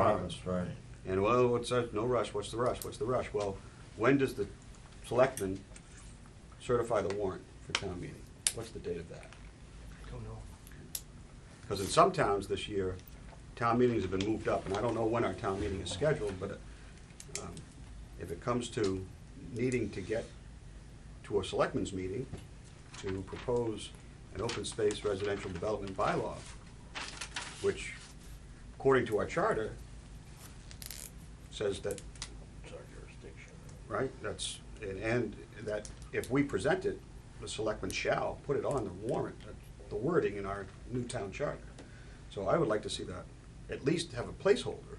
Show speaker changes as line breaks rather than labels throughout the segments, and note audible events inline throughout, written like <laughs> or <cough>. Barnes.
Right.
And well, what's that? No rush. What's the rush? What's the rush? Well, when does the selectman certify the warrant for town meeting? What's the date of that?
Don't know.
Because in some towns this year, town meetings have been moved up, and I don't know when our town meeting is scheduled, but um, if it comes to needing to get to a selectmen's meeting to propose an open space residential development bylaw, which according to our charter says that
It's our jurisdiction.
right? That's, and, and that if we present it, the selectmen shall put it on the warrant, uh, the wording in our new town charter. So I would like to see that, at least have a placeholder.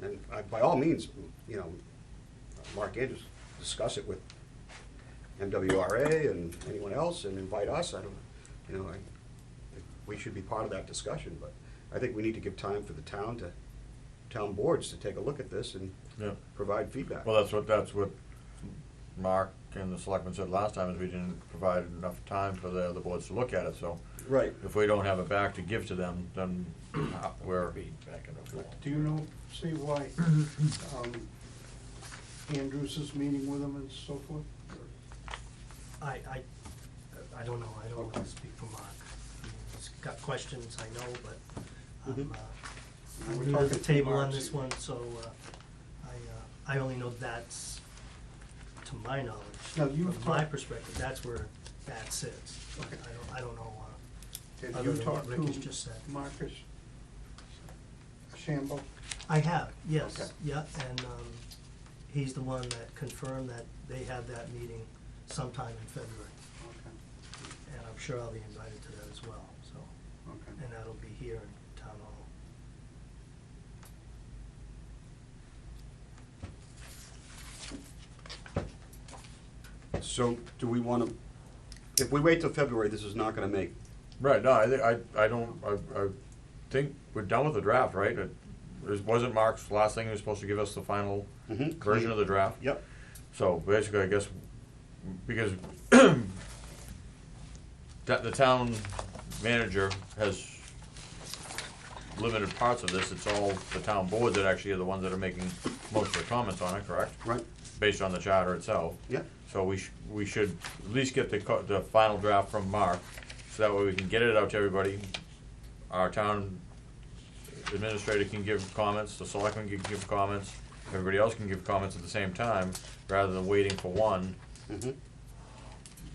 And I- by all means, you know, Mark Andrews, discuss it with MWRA and anyone else and invite us, I don't, you know, I, we should be part of that discussion, but I think we need to give time for the town to, town boards to take a look at this and
Yeah.
provide feedback.
Well, that's what, that's what Mark and the selectmen said last time, is we didn't provide enough time for the other boards to look at it, so
Right.
if we don't have it back to give to them,
<coughs>
then we're,
back and forth.
Do you know, see why
Mm-hmm.
um, Andrews is meeting with him and so forth?
I, I, I don't know, I don't
Okay.
wanna speak for Mark. I mean, He's got questions, I know, but I'm,
Mhm.
Mm-hmm.
uh,
We're
I'm new to the
talking
table on
Mark's
this
here.
one, so, uh, I, uh, I only know that's, to my knowledge.
Now, you've
From my
talked-
perspective, that's where that sits. I
Okay.
don't, I don't know, uh,
Did
Other
you
than
talk
what Rick has
to
just said.
Marcus Shambo?
I have, yes,
Okay.
yeah, and um, he's the one that confirmed that they had that meeting sometime in February,
Okay,
and I'm sure I'll be invited to that as well, so,
okay.
and that'll be here in Town Hall.
So do we want to, if we wait till February, this is not going to make,
right, no, I, thi- I, I don't, I, I think we're done with the draft, right? It it wasn't Mark's last thing, he was supposed to give us the final
Mhm.
version of the draft?
yep,
So basically, I guess, because <clears throat> that the town manager has limited parts of this, it's all the town board that actually are the ones that are making most of the comments on it, correct?
right?
Based on the charter itself.
Yep.
So we sh- we should at least get the co- the final draft from Mark, so that way we can get it out to everybody. Our town administrator can give comments, the selectmen can give comments, everybody else can give comments at the same time, rather than waiting for one.
Mhm.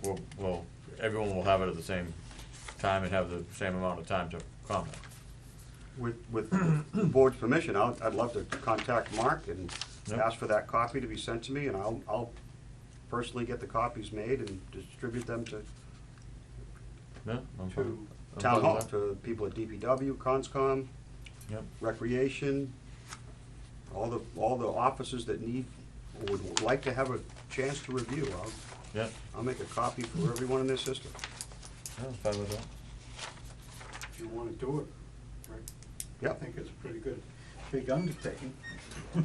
We'll, we'll, everyone will have it at the same time and have the same amount of time to comment.
With, with the board's permission, I'd, I'd love to contact Mark and
Yep.
ask for that copy to be sent to me, and I'll, I'll personally get the copies made and distribute them to,
Yeah, I'm fine.
to
I'm
town
fine
hall,
with that.
to people at DPW, Conscom,
Yep.
Recreation, all the, all the offices that need, would like to have a chance to review. I'll,
Yeah,
I'll make a copy for everyone in their system.
yeah, I'm fine with that.
If you want to do it, Rick. I
Yep.
think it's a pretty good, big undertaking. <laughs>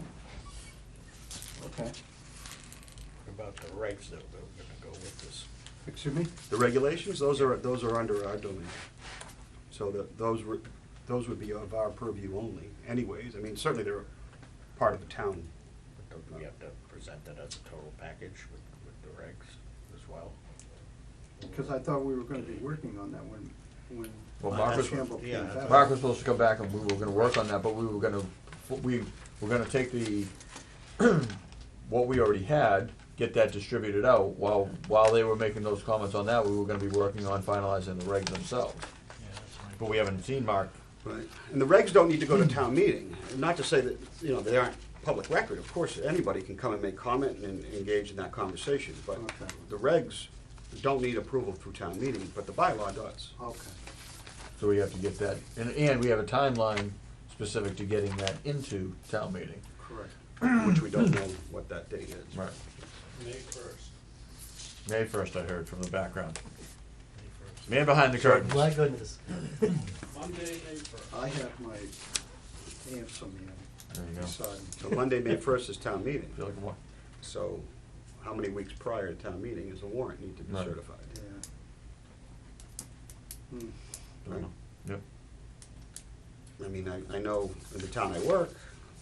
Okay,
about the regs that we're gonna go with this.
excuse me?
The regulations, those are, those are under our domain. So that, those were, those would be of our purview only anyways. I mean, certainly they're part of the town.
But don't we have to present it as a total package with, with the regs as well?
Because I thought we were going to be working on that when, when
Well, Mark was-
Shambo came
yeah, that's
back.
what-
Mark was supposed to come back and we were gonna work on that, but we were gonna, we were gonna take the, <clears throat> what we already had, get that distributed out, while, while they were making those comments on that, we were gonna be working on finalizing the regs themselves. But we haven't seen Mark.
Right. And the regs don't need to go to town meeting. Not to say that, you know, they aren't public record. Of course, anybody can come and make comment and engage in that conversation. But
Okay.
the regs don't need approval through town meeting, but the bylaw does.
Okay,
So we have to get that, and, and we have a timeline specific to getting that into town meeting.
correct.
Which we don't know what that date is.
Right.
May first.
May first, I heard from the background. Man behind the curtain.
My goodness.
Monday, May first.
I have my handsome
There you go.
man beside me.
So Monday, May first is town meeting.
Feel like a wa-
So how many weeks prior to town meeting does the warrant need to be
Right.
certified?
Yeah. Hmm.
I don't know. Yep.
I mean, I, I know in the town I work,